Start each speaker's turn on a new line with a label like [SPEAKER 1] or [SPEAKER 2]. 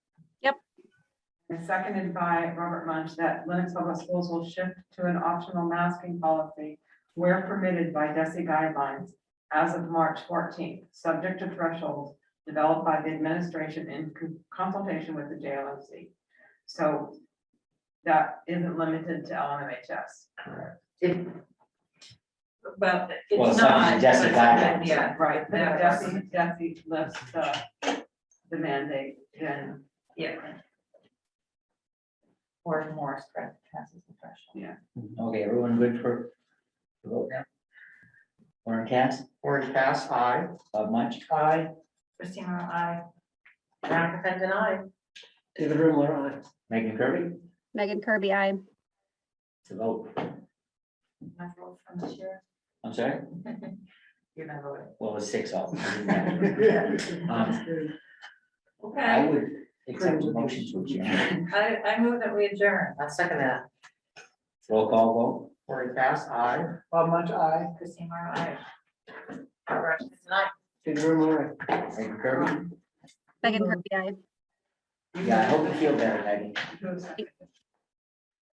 [SPEAKER 1] and seconded by Robert Munch, that Lennox Public Schools will shift to an optional masking policy where permitted by DESI guidelines as of March fourteenth, subject to thresholds developed by the administration in con- consultation with the JLMC. So that isn't limited to LMHS.
[SPEAKER 2] If,
[SPEAKER 3] Well,
[SPEAKER 4] Well,
[SPEAKER 3] it's
[SPEAKER 4] it's not
[SPEAKER 3] not.
[SPEAKER 4] just a
[SPEAKER 3] but it's-
[SPEAKER 4] guideline.
[SPEAKER 3] Yeah,
[SPEAKER 1] Right, but
[SPEAKER 3] Yeah.
[SPEAKER 1] DESI, DESI lifts the, the mandate, then
[SPEAKER 3] yeah.
[SPEAKER 2] or more spread passes the threshold.
[SPEAKER 4] Mm-hmm. Okay, everyone good for the vote now? Warren Cass,
[SPEAKER 5] Warren Cass, aye.
[SPEAKER 4] Bob Munch,
[SPEAKER 2] Aye.
[SPEAKER 3] Christina, I,
[SPEAKER 2] Veronica Pendon, aye.
[SPEAKER 5] David Rimler, aye.
[SPEAKER 4] Megan Kirby,
[SPEAKER 6] Megan Kirby, I.
[SPEAKER 4] to vote.
[SPEAKER 3] I vote from the chair.
[SPEAKER 4] I'm sorry,
[SPEAKER 2] You're not voting.
[SPEAKER 4] well, it's six all. Um, I
[SPEAKER 3] Okay,
[SPEAKER 4] would accept the motion to adjourn.
[SPEAKER 3] I, I move that we adjourn.
[SPEAKER 2] I'll second that.
[SPEAKER 4] Roll call vote.
[SPEAKER 5] Warren Cass, aye.
[SPEAKER 2] Bob Munch, aye.
[SPEAKER 3] Christina, I. Barbara Streisand, aye.
[SPEAKER 5] David Rimler, aye.
[SPEAKER 4] Megan Kirby,
[SPEAKER 6] Megan Kirby, I.
[SPEAKER 4] yeah, I hope you feel better, Megan.
[SPEAKER 1] Who's-